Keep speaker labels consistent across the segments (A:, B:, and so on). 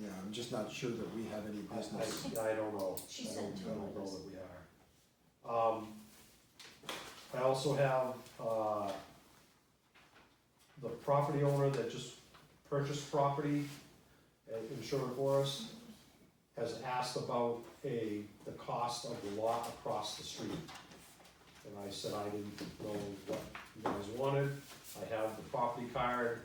A: Yeah, I'm just not sure that we have any
B: I,
A: business.
B: I- I don't know.
C: She
B: I
C: sent
B: don't-
C: two
B: I don't know
C: letters.
B: that we are. Um, I also have, uh, the property owner that just purchased property and insured for us has asked about a, the cost of the lot across the street. And I said I didn't know what you guys wanted, I have the property card.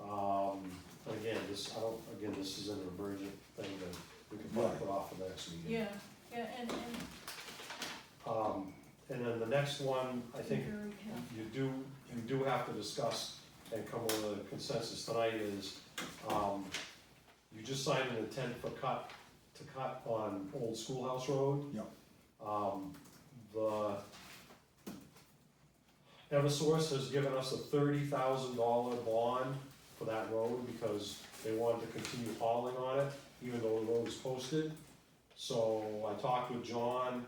B: Um, but again, this, I don't, again, this is an emergent thing that we can probably put off for the next meeting.
C: Yeah, yeah, and, and
B: Um, and then the next one, I
C: be
B: think
C: very careful.
B: you do, you do have to discuss and come with a consensus tonight is, um, you just signed an intent for cut, to cut on Old Schoolhouse Road.
A: Yep.
B: Um, the Eversource has given us a thirty thousand dollar bond for that road because they wanted to continue hauling on it, even though the road is posted. So I talked with John,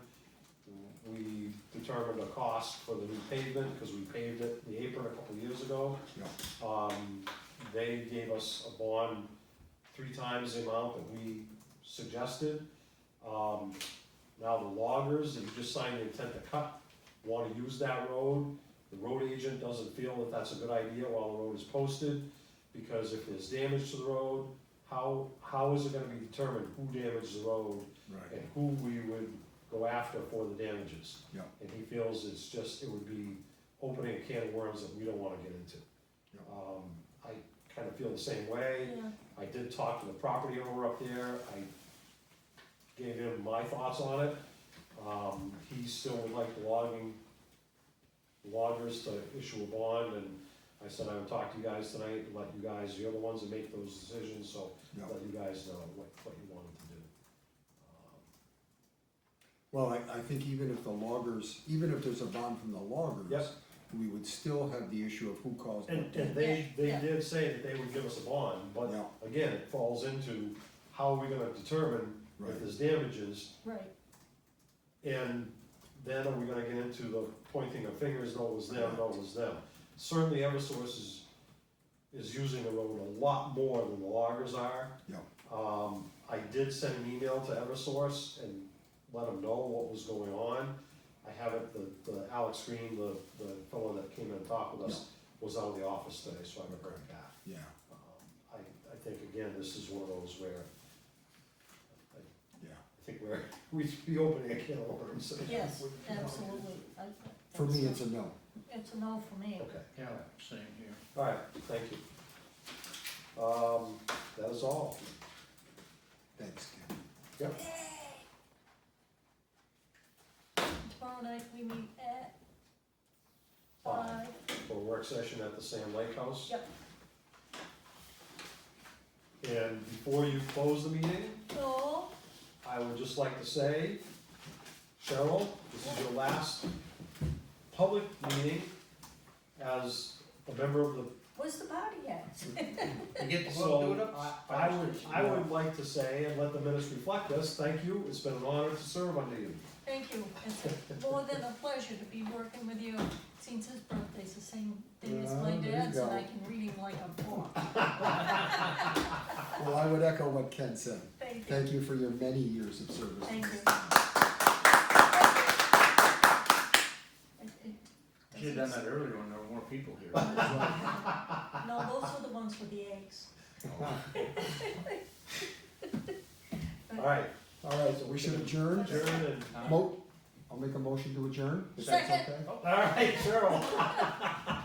B: we determined a cost for the new pavement, because we paved it, the apron a couple years ago.
A: Yeah.
B: Um, they gave us a bond three times the amount that we suggested. Um, now the loggers, that you just signed the intent to cut, wanna use that road. The road agent doesn't feel that that's a good idea while the road is posted, because if there's damage to the road, how, how is it gonna be determined who damaged the road?
A: Right,
B: and who we would go after for the damages.
A: Yeah.
B: And he feels it's just, it would be opening a can of worms that we don't wanna get into.
A: Yeah.
B: Um, I kinda feel the same way,
C: Yeah,
B: I did talk to the property owner up there, I gave him my thoughts on it. Um, he still would like the logging, loggers to issue a bond, and I said I would talk to you guys tonight, and let you guys, you're the ones that make those decisions, so
A: yeah.
B: let you guys know what, what you wanted to do. Um,
A: Well, I, I think even if the loggers, even if there's a bond from the loggers.
B: Yep.
A: We would still have the issue of who caused what
B: And,
A: damage.
B: and they, they
C: Yeah.
B: did say that they would give us a bond, but
A: Yeah.
B: again, it falls into how are we gonna determine
A: Right,
B: if there's damages?
C: right,
B: And then are we gonna get into the pointing of fingers, no, it was them, no, it was them? Certainly Eversource is, is using the road a lot more than the loggers are.
A: Yeah.
B: Um, I did send an email to Eversource and let them know what was going on. I have it, the, the Alex Green, the, the fellow that came in and talked with us, was out of the office today, so I haven't heard back.
A: yeah,
B: Um, I, I think again, this is one of those where I
A: yeah.
B: I think we're, we should be opening a can of worms.
C: yes,
B: We- we don't-
C: absolutely. I-
A: For me, it's
C: that's
A: a no.
C: a- It's a no for me.
B: Okay,
D: Yeah, same here.
B: all right, thank you. Um, that is all.
A: Thanks, Ken.
B: Yep,
C: Tomorrow night, we meet at
B: Five.
C: five,
B: for a work session at the Sam Lake House.
C: Yep.
B: And before you close the meeting,
C: no,
B: I would just like to say, Cheryl, this is your last public meeting as a member of the
C: where's the party at?
D: You get to
B: So,
D: go do it up?
B: I would, I would like to say, and let the minutes reflect this, thank you, it's been an honor to serve under you.
C: Thank you, it's more than a pleasure to be working with you, since his birthday's the same day as my
A: Yeah, there you
C: dad's, and I
A: go.
C: can read him like a book.
A: Well, I would echo what Ken said.
C: Thank you,
A: Thank you for your many years of service.
C: thank you. It- it
D: Should've done that earlier when there were more people here.
C: No, those were the ones with the eggs.
B: Alright,
A: All right, so we should adjourn.
B: adjourn and,
A: Mo, I'll make a motion to adjourn, if that's
C: Second.
A: okay.
B: alright, Cheryl,